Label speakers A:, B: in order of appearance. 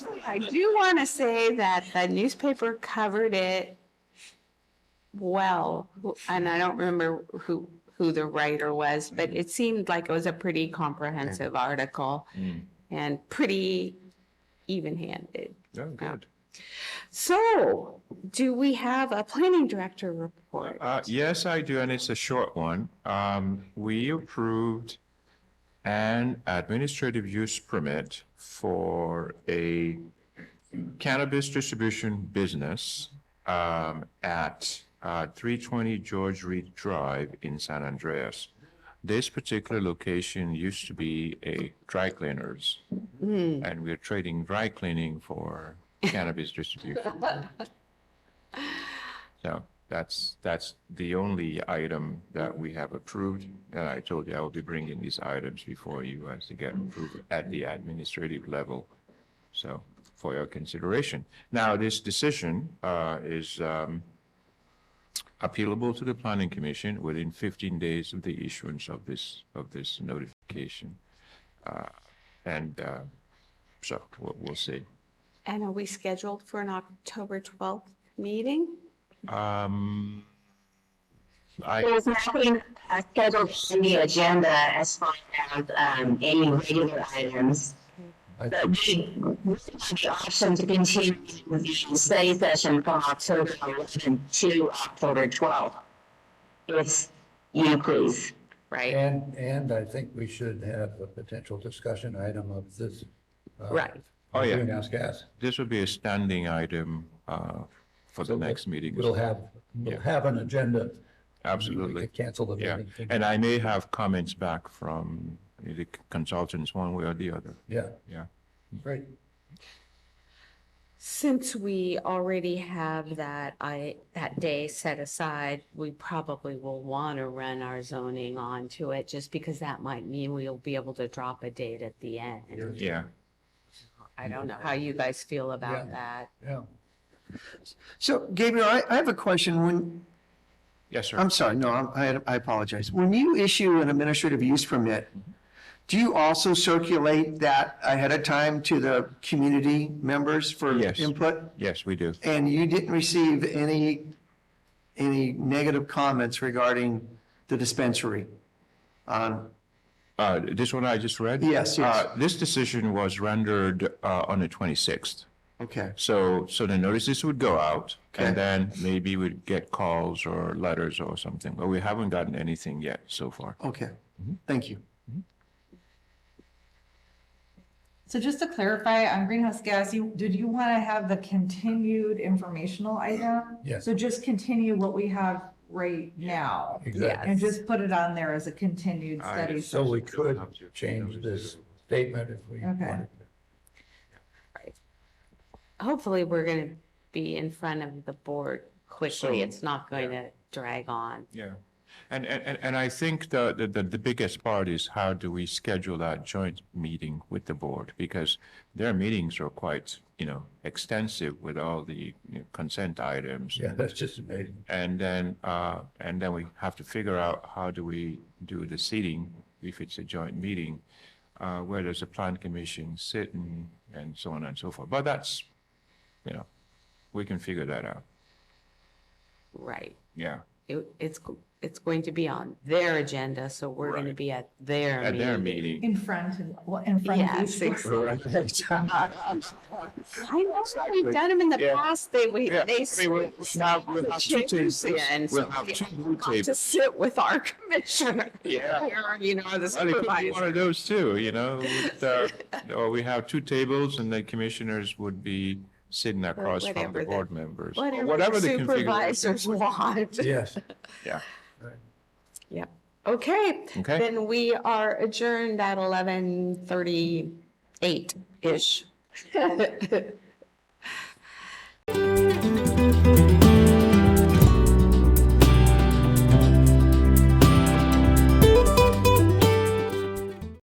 A: I do want to say that the newspaper covered it well, and I don't remember who, who the writer was, but it seemed like it was a pretty comprehensive article
B: Mm.
A: and pretty even-handed.
B: Oh, good.
A: So, do we have a planning director report?
B: Uh, yes, I do, and it's a short one. Um, we approved an administrative use permit for a cannabis distribution business, um, at, uh, three twenty George Reed Drive in San Andreas. This particular location used to be a dry cleaners. And we're trading dry cleaning for cannabis distribution. So that's, that's the only item that we have approved. And I told you I will be bringing these items before you as to get approved at the administrative level. So for your consideration. Now, this decision uh, is um, appealable to the planning commission within 15 days of the issuance of this, of this notification. Uh, And uh, so we'll we'll see.
A: And are we scheduled for an October 12th meeting?
B: Um, I.
C: There's nothing uh, scheduled in the agenda as far as um, any regular items. But we, we have the option to continue with the study session from October 11th to October 12th. If you please.
A: Right,
D: And, and I think we should have a potential discussion item of this. uh,
A: Right.
B: Oh, yeah.
D: Greenhouse gas.
B: This would be a standing item uh, for the
D: So
B: next meeting.
D: We'll have, we'll have an agenda. We
B: Absolutely,
D: could Cancel the
B: yeah.
D: meeting.
B: And I may have comments back from the consultants one way or the other,
D: Yeah,
B: yeah.
D: great.
A: since we already have that, I, that day set aside, we probably will want to run our zoning onto it, just because that might mean we'll be able to drop a date at the end.
B: Yeah,
A: I don't know how you guys feel about that.
D: Yeah.
E: So Gabriel, I, I have a question. When,
B: yes, sir.
E: I'm sorry, no, I'm- I, I apologize. When you issue an administrative use permit, do you also circulate that ahead of time to the community members for
B: Yes.
E: input?
B: Yes, we do.
E: And you didn't receive any, any negative comments regarding the dispensary? Um,
B: Uh, This one I just read?
E: Yes, yes.
B: Uh, This decision was rendered uh, on the 26th.
E: okay,
B: So, so the notices would go out
E: Okay.
B: and then maybe we'd get calls or letters or something, but we haven't gotten anything yet so far.
E: okay. Thank you.
F: So just to clarify on greenhouse gas, you, did you want to have the continued informational item?
D: Yes.
F: So just continue what we have right now
D: Exactly.
F: and just put it on there as a continued
B: I
F: study.
D: So we could change this statement if we
F: Okay.
D: wanted.
A: Hopefully, we're going to be in front of the board quickly.
B: So-
A: It's not going to drag on.
B: Yeah, and, and, and- and I think the, the- the, the biggest part is how do we schedule that joint meeting with the board? Because their meetings are quite, you know, extensive with all the you know, consent items.
D: Yeah, that's just amazing.
B: And then, uh, and then we have to figure out how do we do the seating, if it's a joint meeting, uh, where does the plan commission sit and, and so on and so forth. But that's, you know, we can figure that out,
A: Right.
B: yeah.
A: It, it's, it's going to be on their agenda, so we're going to
B: Right.
A: be at their
B: At their
A: meeting.
B: meeting,
F: In front and, well, in front
A: Yeah,
F: of each.
A: six-
F: one.
A: I know, we've done them in the
B: Yeah.
A: past, they, we,
B: Yeah,
A: they.
B: I mean, we'll- we'll have- we'll have two tables.
A: And
B: We'll
A: so
B: have
A: we
B: two blue
A: got to
B: tables.
A: sit with our commissioner.
B: Yeah.
A: Or, You know, the
B: Well, it could be one
A: supervisor.
B: of those too, you know, with, uh, or we have two tables and the commissioners would be sitting across from
A: whatever
B: the
A: the-
B: board members. or
A: Whatever
B: the
A: the
B: configuration.
A: supervisors want.
D: Yes.
B: Yeah.
A: Yep. Okay.
B: Okay.
A: Then we are adjourned at eleven thirty-eight-ish.